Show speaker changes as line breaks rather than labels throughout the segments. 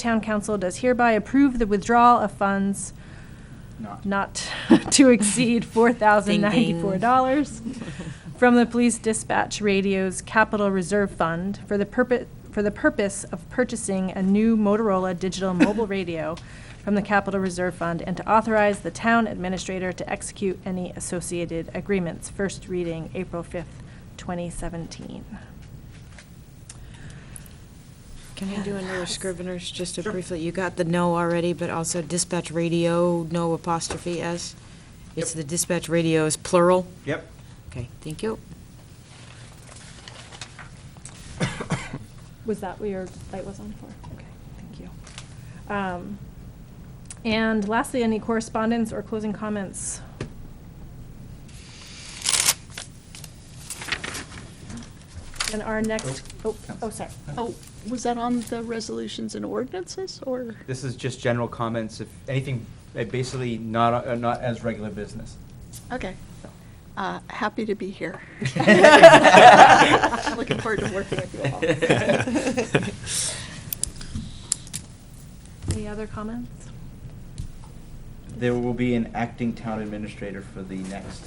Town council does hereby approve the withdrawal of funds
Not.
not to exceed four thousand ninety-four dollars from the police dispatch radio's capital reserve fund for the purpose, for the purpose of purchasing a new Motorola digital mobile radio from the capital reserve fund and to authorize the town administrator to execute any associated agreements. First reading, April fifth, twenty seventeen.
Can I do another Scrivener's, just to
Sure.
briefly, you got the no already, but also dispatch radio, no apostrophe S? It's
Yep.
the dispatch radio is plural?
Yep.
Okay, thank you.
Was that what your light was on for? Okay, thank you. Um, And lastly, any correspondence or closing comments? And our next, oh, oh, sorry.
Oh, was that on the resolutions and ordinances, or?
This is just general comments, if anything, uh, basically not, uh, not as regular business.
Okay. Uh, Happy to be here. Looking forward to working with you all.
Any other comments?
There will be an acting town administrator for the next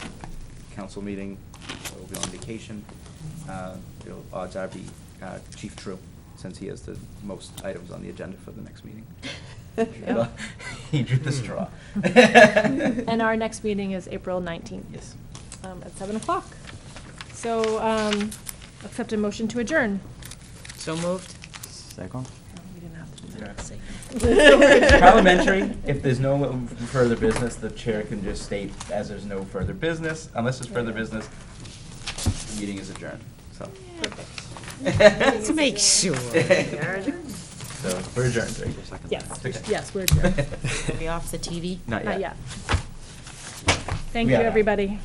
council meeting. I will be on vacation. Uh, it'll- Odds are be uh, Chief True, since he has the most items on the agenda for the next meeting.
Yeah.
He drew the straw.
And our next meeting is April 19th.
Yes.
um, At 7 o'clock. So um, accept a motion to adjourn.
So moved?
Second?
We didn't have to do
It's Parliamentary, if there's no further business, the chair can just state, as there's no further business, unless there's further business, the meeting is adjourned, so.
Let's make sure.
So, we're adjourned, right?
Yes,
Okay.
yes, we're adjourned.
Are we off the TV?
Not
Not yet.
yet.
Thank
We
you,
are.
everybody.